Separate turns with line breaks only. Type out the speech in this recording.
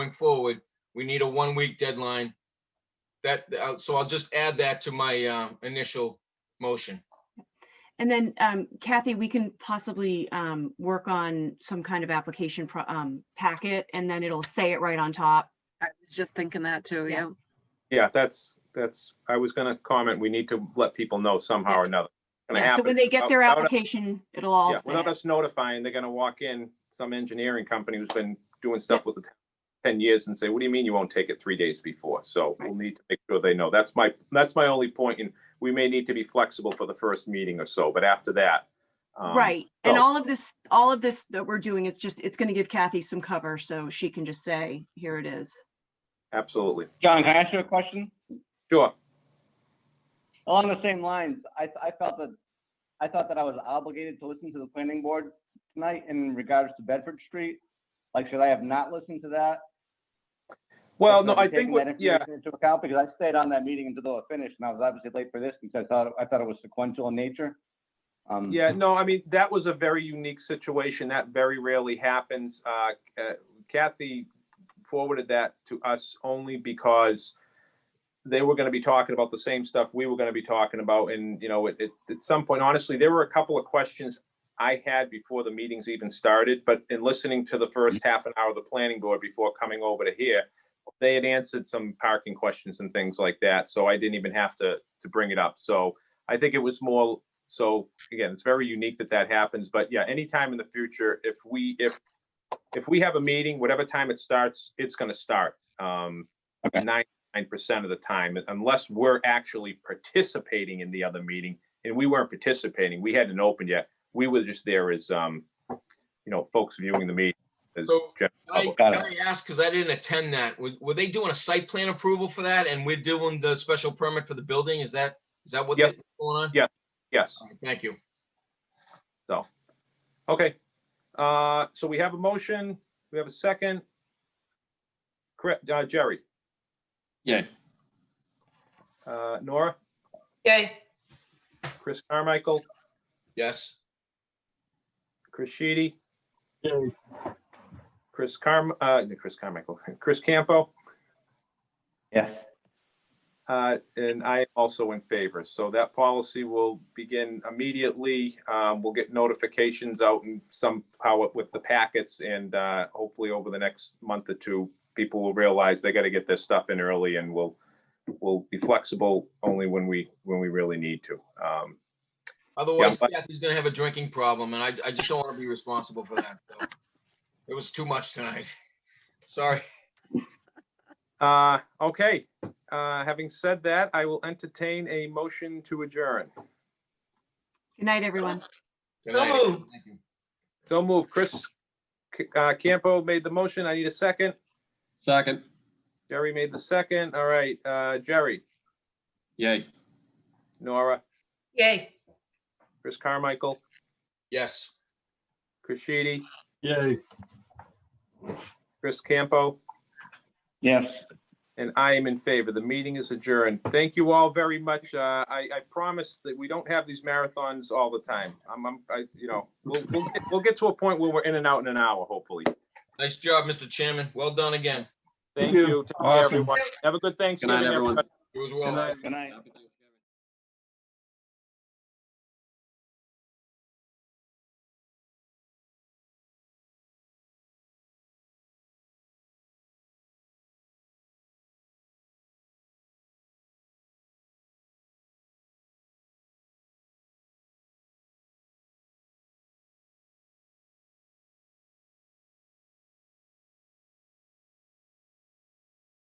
going forward, we need a one-week deadline. That, uh, so I'll just add that to my um, initial motion.
And then um, Kathy, we can possibly um, work on some kind of application pro- um, packet and then it'll say it right on top.
I was just thinking that too,
Yeah.
yeah.
Yeah, that's, that's, I was gonna comment, we need to let people know somehow or another. Gonna
Yeah, So when
happen.
they get their
Without-
application, it'll all
Yeah,
say
without
it.
us notifying, they're gonna walk in, some engineering company who's been doing stuff with the town ten years and say, what do you mean you won't take it three days before? So we'll need to make sure they know. That's my, that's my only point, and we may need to be flexible for the first meeting or so, but after that. um,
Right. And
so-
all of this, all of this that we're doing, it's just, it's going to give Kathy some cover so she can just say, here it is.
Absolutely.
John, can I ask you a question?
Sure.
Along the same lines, I, I felt that, I thought that I was obligated to listen to the planning board tonight in regards to Bedford Street. Like, should I have not listened to that?
Well, no,
Should be
I think,
taking that
what- yeah,
information Into account, because I stayed on that meeting until it finished, and I was obviously late for this, because I thought, I thought it was sequential in nature. Um,
Yeah, no, I mean, that was a very unique situation. That very rarely happens. Uh, uh, Kathy forwarded that to us only because they were gonna be talking about the same stuff we were gonna be talking about, and, you know, at, at- at some point, honestly, there were a couple of questions I had before the meetings even started, but in listening to the first half an hour of the planning board before coming over to here, they had answered some parking questions and things like that, so I didn't even have to, to bring it up. So I think it was more so again, it's very unique that that happens, but yeah, anytime in the future, if we, if, if we have a meeting, whatever time it starts, it's gonna start. Um,
Okay.
ninety-nine percent of the time, unless we're actually participating in the other meeting, and we weren't participating, we hadn't opened yet. We were just there as, um, you know, folks viewing the meeting as,
So-
gen-
Can I-
Got
can
it.
I ask, because I didn't attend that, was, were they doing a site plan approval for that and we're doing the special permit for the building? Is that, is that what
Yes.
that's going on?
Yeah. yes,
All right, Thank you.
so. Okay, uh, so we have a motion, we have a second. Correct, uh, Jerry,
Yay.
uh, Nora?
Yay.
Chris Carmichael,
Yes.
Chris Sheedy. Chris Carm, uh, no, Chris Carmichael, Chris Campo,
Yes.
uh, and I also in favor. So that policy will begin immediately. Um, we'll get notifications out and somehow with the packets and, uh, hopefully over the next month or two, people will realize they gotta get their stuff in early and we'll, we'll be flexible only when we, when we really need to. Um,
Otherwise,
but-
Kathy's gonna have a drinking problem and I, I just don't want to be responsible for that. so. It was too much tonight. Sorry.
Uh, okay, uh, having said that, I will entertain a motion to adjourn.
Good night, everyone.
Good
So
night.
moved.
Thank you.
So move. Chris C- uh, Campo made the motion. I need a second.
Second.
Jerry made the second. All right, uh, Jerry,
Yay.
Nora,
Yay.
Chris Carmichael,
Yes.
Chris Sheedy. Yay. Chris Campo,
Yes.
and I am in favor. The meeting is adjourned. Thank you all very much. Uh, I, I promise that we don't have these marathons all the time. I'm, I'm, I, you know, we'll, we'll, get- we'll get to a point where we're in and out in an hour, hopefully.
Nice job, Mr. Chairman. Well done again.
Thank you. Take care,
Awesome.
everyone. Have a good Thanksgiving.
everyone.
everybody.
It was well.
Good night.
Good night.
Happy Thanksgiving.